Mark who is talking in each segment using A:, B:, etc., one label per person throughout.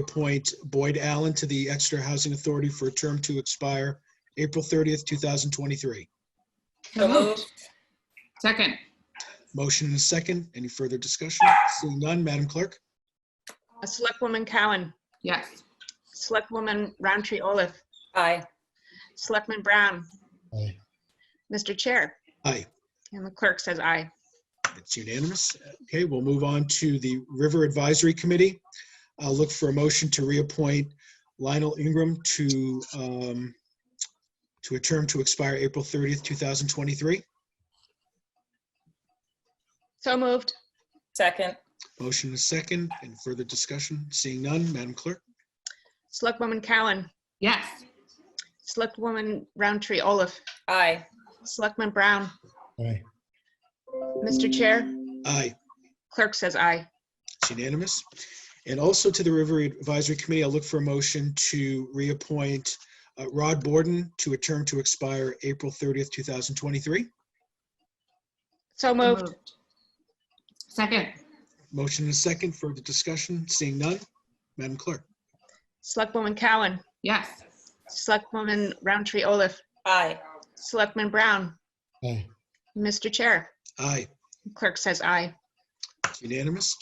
A: reappoint Boyd Allen to the Exeter Housing Authority for a term to expire April 30th, 2023.
B: So moved.
C: Second.
A: Motion and a second. Any further discussion? Seeing none, Madam Clerk?
D: Uh, Selectwoman Cowan,
C: Yes.
D: Selectwoman Roundtree Olaf,
B: Aye.
D: Selectman Brown,
E: Aye.
D: Mr. Chair,
A: Aye.
D: and the clerk says aye.
A: It's unanimous. Okay, we'll move on to the River Advisory Committee. I'll look for a motion to reappoint Lionel Ingram to, um, to a term to expire April 30th, 2023.
D: So moved.
B: Second.
A: Motion is second. Any further discussion? Seeing none, Madam Clerk?
D: Selectwoman Cowan,
C: Yes.
D: Selectwoman Roundtree Olaf,
B: Aye.
D: Selectman Brown,
E: Aye.
D: Mr. Chair,
A: Aye,
D: clerk says aye.
A: it's unanimous. And also to the River Advisory Committee, I'll look for a motion to reappoint uh, Rod Borden to a term to expire April 30th, 2023.
D: So moved.
C: Second.
A: Motion is second. Further discussion? Seeing none, Madam Clerk?
D: Selectwoman Cowan,
C: Yes.
D: Selectwoman Roundtree Olaf,
B: Aye.
D: Selectman Brown,
E: Aye.
D: Mr. Chair,
A: Aye,
D: clerk says aye.
A: it's unanimous.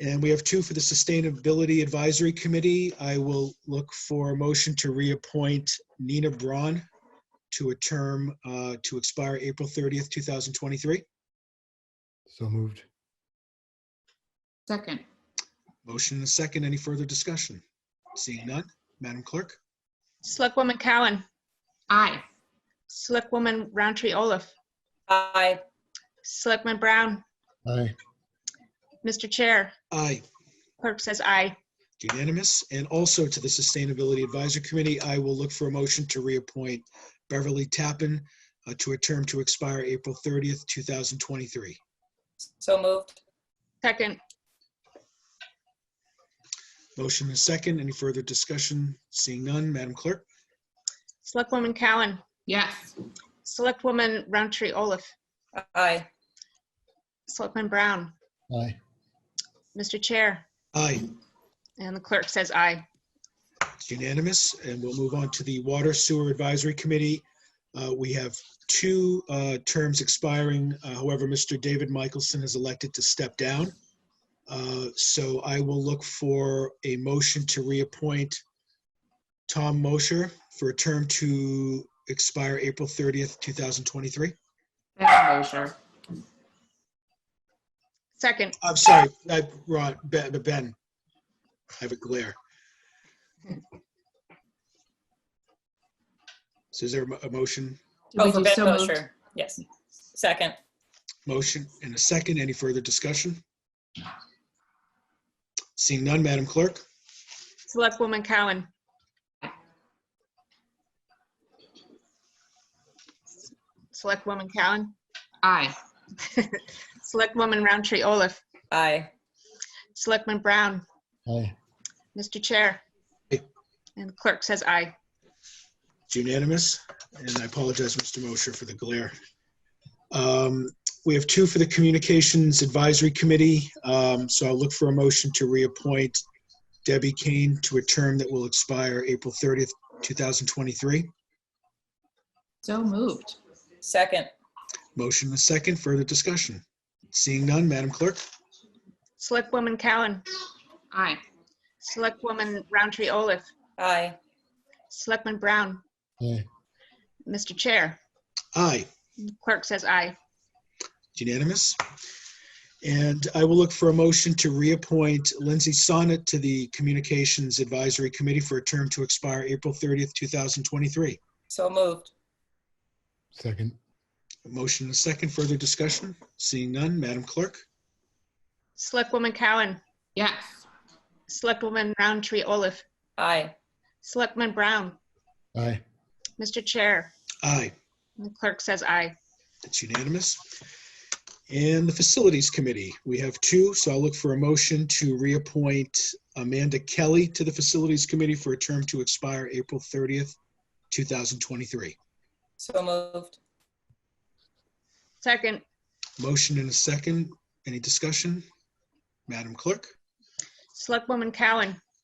A: And we have two for the Sustainability Advisory Committee. I will look for a motion to reappoint Nina Braun to a term uh, to expire April 30th, 2023.
E: So moved.
C: Second.
A: Motion and a second. Any further discussion? Seeing none, Madam Clerk?
D: Selectwoman Cowan,
C: Aye.
D: Selectwoman Roundtree Olaf,
B: Aye.
D: Selectman Brown,
E: Aye.
D: Mr. Chair,
A: Aye,
D: clerk says aye.
A: unanimous. And also to the Sustainability Advisory Committee, I will look for a motion to reappoint Beverly Tappan uh, to a term to expire April 30th, 2023.
B: So moved.
D: Second.
A: Motion is second. Any further discussion? Seeing none, Madam Clerk?
D: Selectwoman Cowan,
C: Yes.
D: Selectwoman Roundtree Olaf,
B: Aye.
D: Selectman Brown,
E: Aye.
D: Mr. Chair,
A: Aye,
D: and the clerk says aye.
A: it's unanimous. And we'll move on to the Water Sewer Advisory Committee. Uh, We have two uh, terms expiring. Uh, However, Mr. David Michelson has elected to step down. Uh, So I will look for a motion to reappoint Tom Mosher for a term to expire April 30th, 2023.
C: Second Mosher.
D: Second.
A: I'm sorry, I, Ron, Ben, Ben. I have a glare. So is there a mo- a motion,
C: Did
B: Oh,
C: we
B: for
C: do
B: Ben
C: so moved?
B: Mosher. Yes. Second.
A: motion and a second? Any further discussion? Seeing none, Madam Clerk?
D: Selectwoman Cowan. Selectwoman Cowan,
C: Aye.
D: Selectwoman Roundtree Olaf,
B: Aye.
D: Selectman Brown,
E: Aye.
D: Mr. Chair.
A: Aye.
D: And the clerk says aye.
A: It's unanimous, and I apologize, Mr. Mosher, for the glare. Um, We have two for the Communications Advisory Committee, um, so I'll look for a motion to reappoint Debbie Kane to a term that will expire April 30th, 2023.
C: So moved.
B: Second.
A: Motion and a second, further discussion. Seeing none, Madam Clerk?
D: Selectwoman Cowan,
C: Aye.
D: Selectwoman Roundtree Olaf,
B: Aye.
D: Selectman Brown,
E: Aye.
D: Mr. Chair.
A: Aye.
D: and the Clerk says aye.
A: Unanimous. And I will look for a motion to reappoint Lindsay Sonnet to the Communications Advisory Committee for a term to expire April 30th, 2023.
B: So moved.
E: Second.
A: A Motion and a second. Further discussion? Seeing none, Madam Clerk?
D: Selectwoman Cowan,
C: Yes.
D: Selectwoman Roundtree Olaf,
B: Aye.
D: Selectman Brown,
E: Aye.
D: Mr. Chair,
A: Aye.
D: and the clerk says aye.
A: It's unanimous. And the Facilities Committee, we have two, so I'll look for a motion to reappoint Amanda Kelly to the Facilities Committee for a term to expire April 30th, 2023.
B: So moved.
D: Second,
A: Motion and a second. Any discussion? Madam Clerk?
D: Selectwoman Cowan,